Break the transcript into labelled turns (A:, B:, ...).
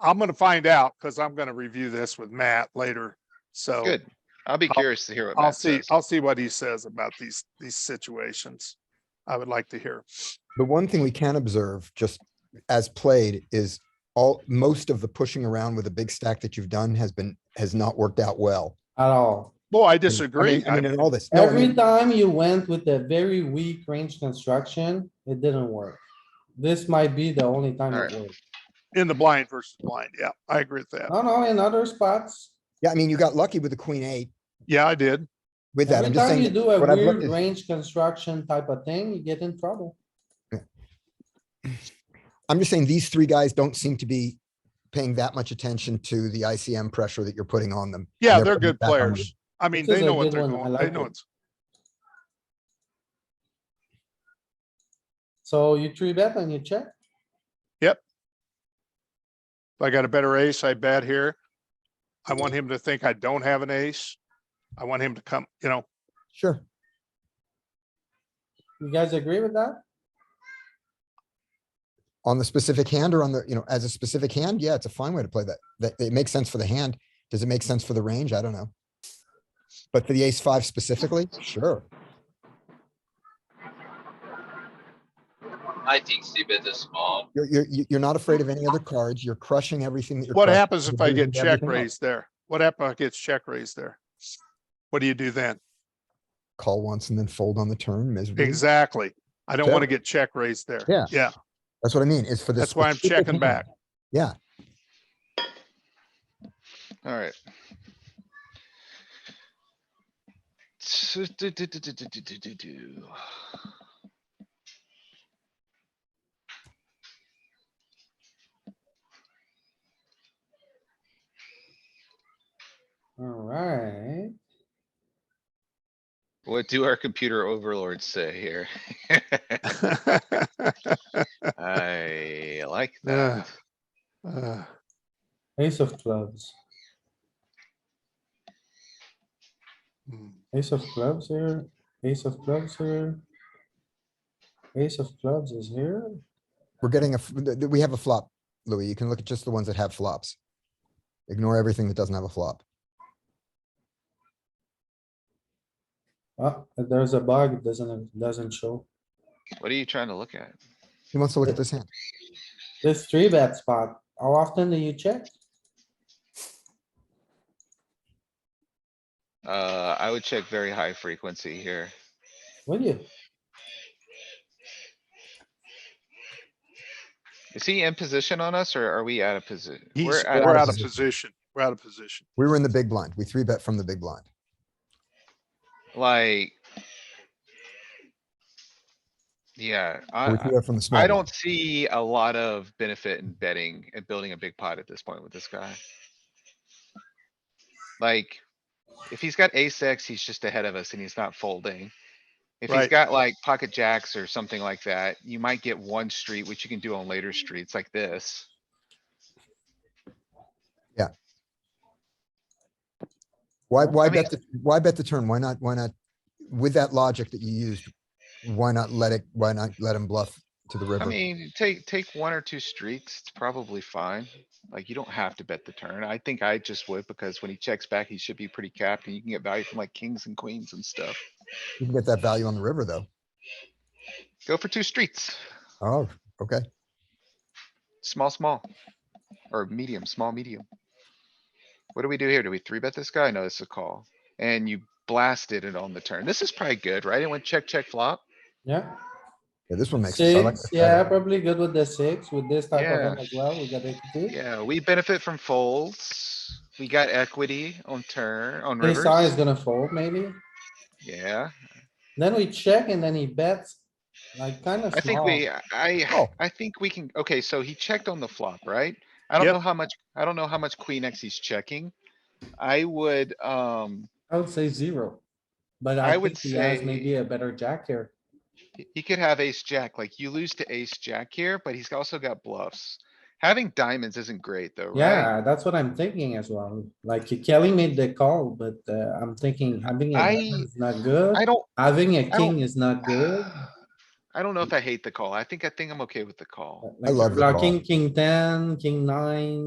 A: I'm gonna find out because I'm gonna review this with Matt later. So
B: Good. I'll be
A: I'll-
B: curious to hear what
A: I'll
B: Matt
A: see,
B: says.
A: I'll see what he says about these, these situations. I would like to hear.
C: The one thing we can observe, just as played, is all, most of the pushing around with a big stack that you've done has been, has not worked out well.
D: at all.
A: Well, I
C: I mean-
A: disagree.
C: I mean, in all this. No, I
D: Every
C: mean,
D: time you went with a very weak range construction, it didn't work. This might be the only time it
B: Alright.
D: worked.
A: In the blind versus blind. Yeah, I agree with that.
D: No, no, in other spots,
C: Yeah, I mean, you got lucky with the queen eight
A: Yeah, I did.
C: with that.
D: every
C: I'm just
D: time you
C: saying,
D: do a
C: what I've
D: weird
C: looked is-
D: range construction type of thing, you get in trouble.
C: I'm just saying these three guys don't seem to be paying that much attention to the ICM pressure that you're putting on them. and
A: Yeah, they're
C: putting it
A: good
C: back on you.
A: players. I mean,
D: This
A: they
D: is a
A: know what
D: good
A: they're
D: one. I
A: going, they
D: like
A: know
D: it.
A: it's,
D: So you three bet and you check.
A: if I got a better ace, I bet here. I want him to think I don't have an ace. I want him to come, you know,
C: Sure.
D: You guys agree with that?
C: On the specific hand or on the, you know, as a specific hand, yeah, it's a fine way to play that. That it makes sense for the hand. Does it make sense for the range? I don't know. But for the ace five specifically, sure.
E: I think C bet is small.
C: You're, you're, you- you're not afraid of any other cards. You're crushing everything that you're.
A: what
C: crushing,
A: happens
C: you're
A: if I
C: beating
A: get check
C: everything up.
A: raised there? What happens if I get check raised there? What do you do then?
C: Call once and then fold on the turn miserably.
A: Exactly. I don't want to
C: Fair.
A: get check raised there.
C: Mm-hmm.
A: Yeah,
C: Yeah. That's what I mean, is for this.
A: that's why I'm
C: specific
A: checking
C: hand.
A: back.
C: Yeah,
B: Alright. So, do, do, do, do, do, do, do, do, do.
D: Alright,
B: What do our computer overlords say here? I like
A: Yeah.
B: that.
A: Uh,
D: ace of clubs,
A: hmm.
D: ace of clubs here, ace of clubs here. Ace of clubs is here.
C: we're getting a, f- th- th- we have a flop, Louis. You can look at just the ones that have flops. Ignore everything that doesn't have a flop.
D: Oh, there's a bug, it doesn't, it doesn't show.
B: What are you trying to look at?
C: He wants to look at this hand.
D: This three bet spot, how often do you check?
B: Uh, I would check very high frequency here.
D: Will you?
B: Is he in position on us or are we out of position?
A: He's,
B: We're
A: we're out of
C: position.
A: position. We're out of position.
C: We were in the big blind. We three bet from the big blind.
B: like. Yeah,
C: or We
B: I,
C: three bet from the small.
B: I
C: blind.
B: don't see a lot of benefit in betting and building a big pot at this point with this guy. Like, if he's got ace X, he's just ahead of us and he's not folding. If he's
A: Right.
B: got like pocket jacks or something like that, you might get one street, which you can do on later streets like this.
C: Why,
D: Well,
C: why
B: I mean-
C: bet, the why bet the turn? Why not, why not, with that logic that you used, why not let it, why not let him bluff to the
B: I
C: river?
B: mean, take, take one or two streets, it's probably fine. Like, you don't have to bet the turn. I think I just would because when he checks back, he should be pretty capped and you can get value from like kings and queens and stuff.
C: You can get that value on the river, though.
B: Go for two streets.
C: Oh, okay.
B: Small, small. Or medium, small, medium. What do we do here? Do we three bet this guy? No, it's a call. And you blasted it on the turn. This is probably good, right? It went check, check, flop.
D: Yeah,
C: Yeah, this one makes. sense. I like
D: six,
C: this better.
D: yeah, probably good with the six, with this type of
B: Yeah.
D: hand as well, we got equity.
B: Yeah, we benefit from folds. We got equity on turn, on
D: Ace high is
B: rivers.
D: gonna fold maybe,
B: Yeah,
D: then we check and then he bets, like kinda
B: I think
D: small.
B: we, I,
C: Oh.
B: I think we can, okay, so he checked on the flop, right? I don't
A: Yep.
B: know how much, I don't know how much queen X he's checking. I would, um,
D: I would say zero. But
B: I
D: I
B: would
D: think he has
B: say-
D: maybe a better jack here.
B: He- He could have ace jack, like you lose to ace jack here, but he's also got bluffs. Having diamonds isn't great though, right?
D: Yeah, that's what I'm thinking as well, like Kelly made the call, but uh, I'm thinking having a
B: I-
D: diamond is not good,
B: I don't,
D: having a
B: don't-
D: king is not good.
B: I don't know if I hate the call. I think, I think I'm okay with the call.
D: like
C: love the call.
D: Blocking king ten, king nine.